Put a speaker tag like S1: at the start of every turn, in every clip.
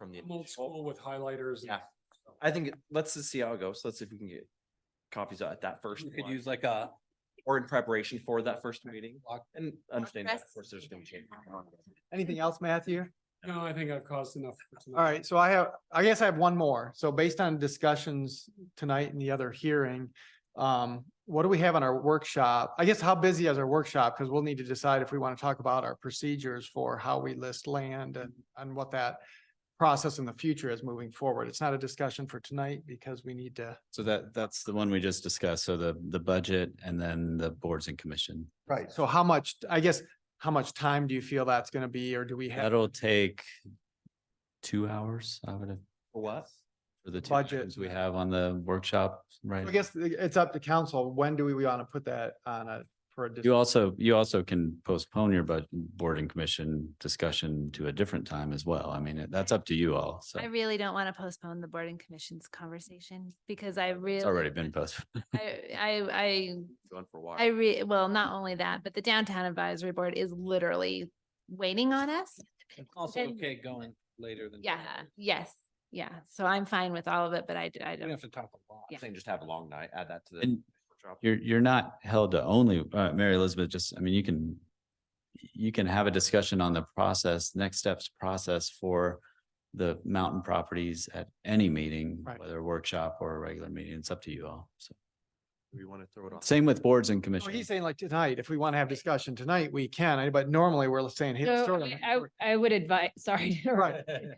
S1: on the.
S2: I'm old
S1: initial.
S2: school with highlighters. and-
S1: Yeah. I think, it- let's just see how it goes. Let's see if we can get copies of it at that first.
S3: You could
S1: one,
S3: use like a,
S1: Or in preparation for that first meeting
S3: Block-
S1: and understand that, of
S4: Press.
S1: course, there's gonna be change.
S5: Anything else, Matthew?
S2: No, I think I've caused enough. for tonight.
S5: All right, so I have, I guess I have one more. So based on discussions tonight and the other hearing, um, what do we have on our workshop? I guess how busy is our workshop? Because we'll need to decide if we want to talk about our procedures for how we list land and, and what that process in the future is moving forward. It's not a discussion for tonight because we need to.
S6: So that, that's the one we just discussed. So the, the budget and then the boards and commission.
S5: Right. So how much, I guess, how much time do you feel that's going to be, or do we have
S6: That'll take two hours, I would have,
S1: For what?
S6: for the two
S5: Budget.
S6: items we have on the workshop, right?
S5: I guess it's up to council. When do we want to put that on a, for a? dis-
S6: You also, you also can postpone your budget, board and commission discussion to a different time as well. I mean, it- that's up to you all. So
S4: I really don't want to postpone the board and commissions conversation because I really.
S6: it's already been postponed.
S4: I, I,
S1: Going for a
S4: I, I
S1: while.
S4: re, well, not only that, but the downtown advisory board is literally waiting on us.
S3: it's also
S4: And-
S3: okay going later than.
S4: Yeah, yes, yeah. So I'm fine with all of it, but I, d- I
S3: We don't
S4: don't.
S3: have to talk a lot.
S4: Yeah.
S1: Saying just have a long night, add that to the.
S6: And
S1: workshop.
S6: You're, you're not held to only, uh, Mary Elizabeth, just, I mean, you can, you can have a discussion on the process, next steps process for the mountain properties at any meeting,
S5: Right.
S6: whether workshop or a regular meeting, it's up to you all. So
S1: We want to throw it off.
S6: same with boards and
S5: So he's
S6: commissions.
S5: saying like tonight, if we want to have discussion tonight, we can, I- but normally we're saying. hey, let's
S7: So
S5: throw it on
S7: I,
S5: the-
S7: I I would advise, sorry, to interrupt.
S5: Right.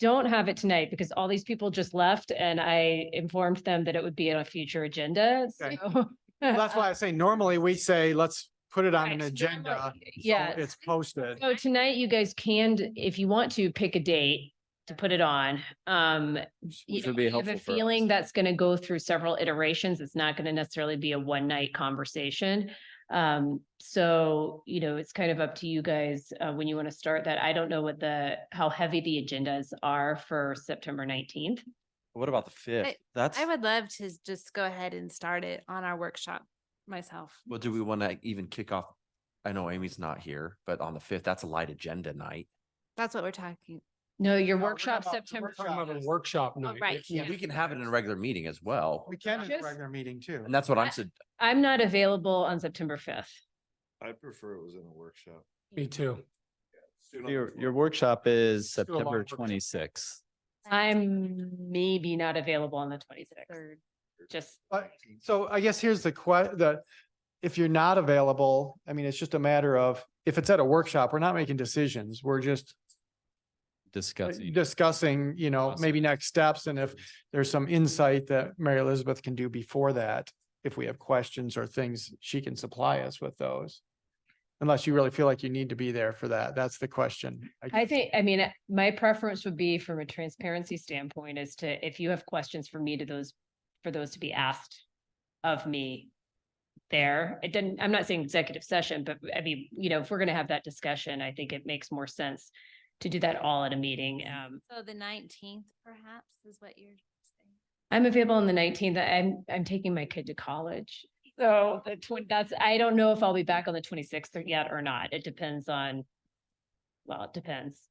S7: don't have it tonight because all these people just left and I informed them that it would be on a future agenda.
S5: Okay.
S7: So
S5: Well, That's why I say normally we say, let's put it on an
S7: Right, so
S5: agenda.
S7: normally-
S5: so
S7: yes.
S5: It's posted.
S7: So tonight you guys can, d- if you want to, pick a date to put it on. Um,
S6: Which
S7: you
S6: would be
S7: know, I have
S6: helpful
S7: a
S6: for us.
S7: Feeling that's going to go through several iterations. It's not going to necessarily be a one night conversation. Um, so, you know, it's kind of up to you guys, uh, when you want to start that. I don't know what the, how heavy the agendas are for September nineteenth.
S1: What about the fifth?
S4: I-
S1: That's,
S4: I would love to just go ahead and start it on our workshop myself.
S1: well, do we want to even kick off? I know Amy's not here, but on the fifth, that's a light agenda night.
S4: That's what we're talking.
S7: No, your
S5: No, we're
S7: workshop
S5: talking about- we're
S7: September.
S2: Talking about a
S5: Yes.
S2: workshop Oh, night.
S4: right,
S2: Yeah.
S4: yeah.
S1: We can have it in a regular meeting as well.
S5: We can in a
S7: Just-
S5: regular meeting too.
S1: And that's what I'm,
S7: I-
S1: sug-
S7: I'm not available on September fifth.
S8: I prefer it was in a workshop.
S2: Me too.
S8: Soon on the
S6: Your,
S8: floor.
S6: your workshop is
S2: Let's do a long
S6: September
S2: workshop.
S6: twenty-sixth.
S7: I'm maybe not available on the twenty-sixth,
S4: Third.
S7: just
S5: But so I guess here's the que, the, if you're not available, I mean, it's just a matter of, if it's at a workshop, we're not making decisions. We're just
S6: discussing.
S5: discussing, you know, maybe
S6: Awesome.
S5: next steps and if there's some insight that Mary Elizabeth can do before that. If we have questions or things, she can supply us with those. Unless you really feel like you need to be there for that. That's the question.
S7: I think, I mean, my preference would be from a transparency standpoint is to, if you have questions for me to those, for those to be asked of me there. It didn't, I'm not saying executive session, but I mean, you know, if we're going to have that discussion, I think it makes more sense to do that all at a meeting. Um,
S4: So the nineteenth perhaps is what you're saying.
S7: I'm available on the nineteenth. I'm, I'm taking my kid to college. So the twen- that's, I don't know if I'll be back on the twenty-sixth yet or not. It depends on, well, it depends.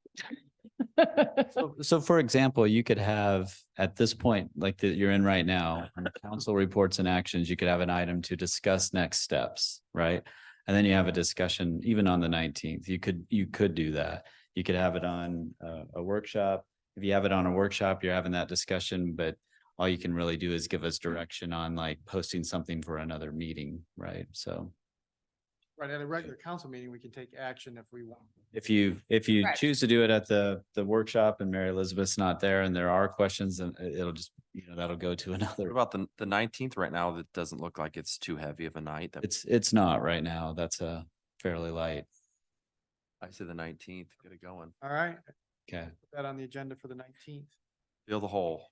S6: So- So for example, you could have, at this point, like that you're in right now, on council reports and actions, you could have an item to discuss next steps, right? And then you have a discussion even on the nineteenth. You could, you could do that. You could have it on uh, a workshop. If you have it on a workshop, you're having that discussion, but all you can really do is give us direction on like posting something for another meeting, right? So
S5: Right, at a regular council meeting, we can take action if we want.
S6: if you, if you
S7: Correct.
S6: choose to do it at the, the workshop and Mary Elizabeth's not there and there are questions, then it- it'll just, you know, that'll go to
S1: what
S6: another.
S1: about the, the nineteenth right now? That doesn't look like it's too heavy of a night. That
S6: It's, it's not right now. That's a fairly light.
S1: I say the nineteenth, get it going.
S5: All right,
S6: Okay.
S5: put that on the agenda for the nineteenth.
S1: Fill the hole.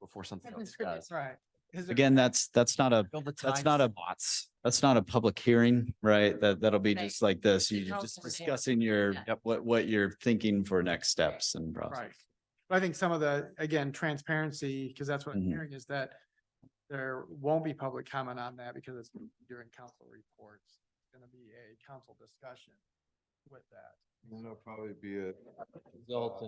S1: Before something else does.
S5: Right. Is there-
S6: Again, that's, that's not a,
S1: Fill the
S6: That's
S1: time
S6: not a-
S1: slots.
S6: that's not a public hearing, right? That, that'll be
S4: Right.
S6: just like this.
S4: It's a
S6: You're just
S4: council meeting.
S6: discussing your,
S4: Yeah.
S1: Yep.
S6: what, what you're thinking for next steps and process.
S5: Right. But I think some of the, again, transparency, because that's what I'm
S6: Mhm.
S5: hearing is that there won't be public comment on that because it's during council reports. It's Going to be a council discussion with that.
S8: And That'll probably be a.
S3: Result